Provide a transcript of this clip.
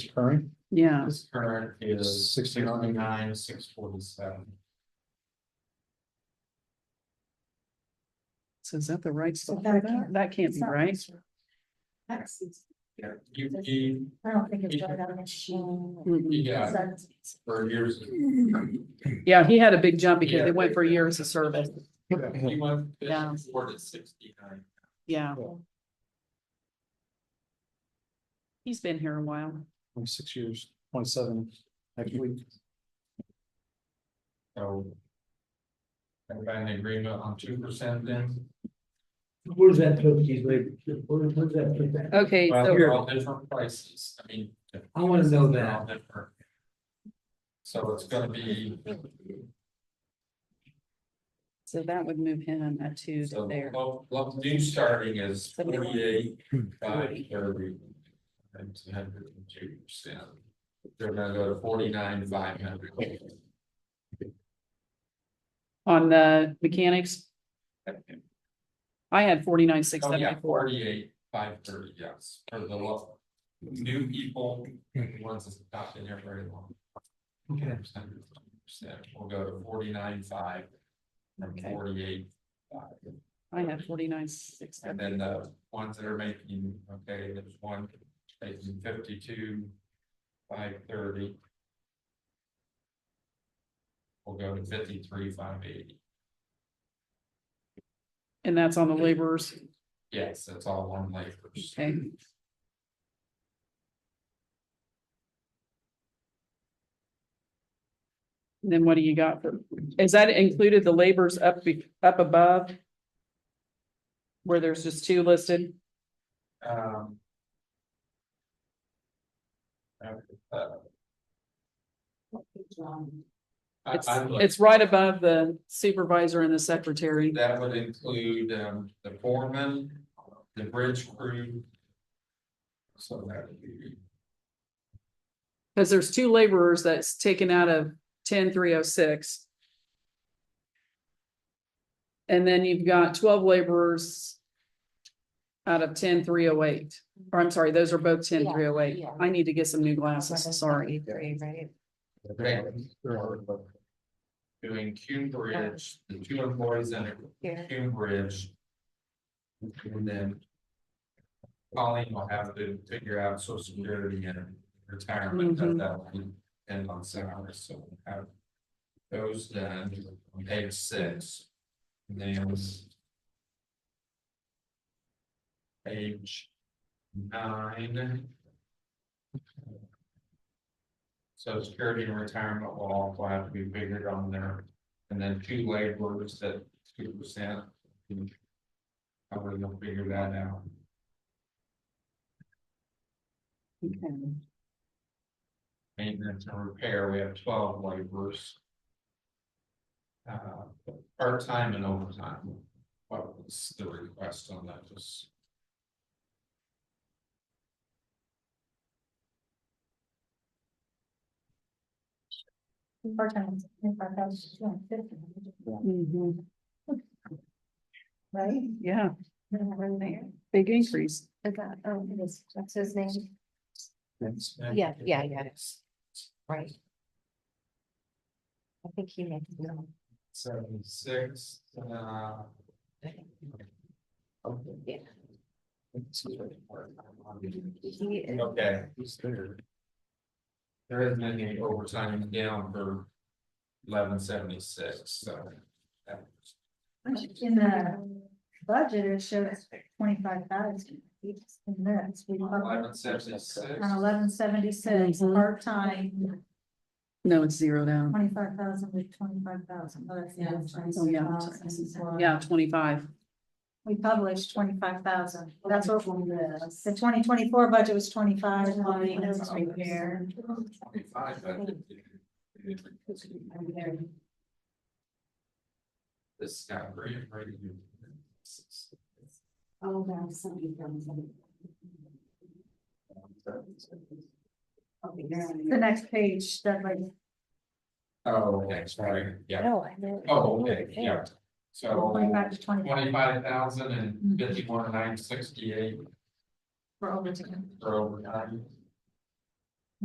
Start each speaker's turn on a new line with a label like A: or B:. A: current?
B: yeah,
C: This current is
A: Sixty-nine.
C: sixty-nine, six forty-seven.
B: so is that the right stuff?
D: that
B: That
D: can't-
B: that can't be right.
D: That's,
C: Yeah, you, you,
D: I don't think it's right on the machine.
B: Mm-mm.
C: yeah,
D: That's-
C: for years.
B: Yeah, he had a big jump because
C: Yeah.
B: it went for years of service.
C: You went
B: Yeah.
C: four to sixty-nine.
B: Yeah. He's been here a while.
A: Twenty-six years, twenty-seven, next week.
C: So. Everybody in agreement on two percent then?
E: Where's that put these labor, where, where's that put that?
B: Okay,
C: Well,
B: so,
C: they're all different prices, I mean.
E: I wanna know
C: they're all
E: that.
C: different. So it's gonna be,
B: so that would move him at two
C: so
B: to there.
C: lo- lo- new starting is
B: Seventy one.
C: forty-eight, five
B: Forty.
C: thirty. And two hundred and two percent. They're gonna go to forty-nine, five hundred.
B: On the mechanics, I had forty-nine, six
C: Oh, yeah,
B: seventy-four.
C: forty-eight, five thirty, yes, for the lo- New people, the ones that's not been here very long.
E: Okay.
C: Percent, we'll go to forty-nine, five. And
B: Okay.
C: forty-eight, five.
B: I had forty-nine, six
C: And
B: seventy.
C: then uh, the ones that are making, okay, there's one making fifty-two, five thirty. We'll go to fifty-three, five eighty.
B: And that's on the laborers.
C: Yes, that's all one laborers.
B: Okay. Then what do you got for, is that included the labors up, be- up above? Where there's just two listed?
C: Um. uh, I,
B: It's,
C: Um, I looked,
B: it's right above the supervisor and the secretary.
C: that would include, um, the foreman, the bridge crew. So that would be.
B: Cause there's two laborers that's taken out of ten three oh six. And then you've got twelve laborers. Out of ten three oh eight, or I'm sorry, those are both ten three oh eight.
D: Yeah, yeah.
B: I need to get some new glasses, sorry.
D: Three, right?
C: doing Cume Bridge, the two employees in
D: Yeah.
C: Cume Bridge. And then. Colleen will have to figure out social security and retirement
B: Mhm.
C: at that one and on salary, so we'll have. Those done on page six. And Then. Page nine. Social security and retirement will also have to be figured on there, and then two laborers at two percent. I would not figure that out.
B: Okay.
C: Maintenance and repair, we have twelve laborers. Uh, part-time and overtime, what was the request on that, just?
D: Four times, five thousand two hundred fifty,
B: Mhm.
D: right?
B: Yeah,
D: Remember there?
B: big increase.
D: Is that, oh, it is, that's his name,
F: Yeah, yeah, yeah, it's- right. I think he meant, no,
C: Seventy-six, uh.
F: yeah, he is.
C: Okay,
A: He's there.
C: there isn't any overtime down for eleven seventy-six, so. that-
D: in the budget, it shows twenty-five thousand. And that's, we.
C: Eleven seventy-six.
D: On eleven seventy-six,
B: Mhm.
D: part-time,
B: No, it's zero down.
D: twenty-five thousand with twenty-five thousand, but that's. the other
B: Oh, yeah.
D: 26,000.
B: Yeah, twenty-five.
D: We published twenty-five thousand, that's what the twenty twenty-four budget was twenty-five, maintenance, repair.
C: Twenty-five, but. This got great, right?
F: Oh, that's somebody from. somebody. Okay, now
D: The next page, that like,
C: Oh, okay, sorry, yeah,
F: No, I know.
C: oh, okay, yeah, so Oh.
D: twenty-five to twenty-five
C: twenty-five thousand and fifty-one, nine sixty-eight
D: for overtime.
C: for overtime.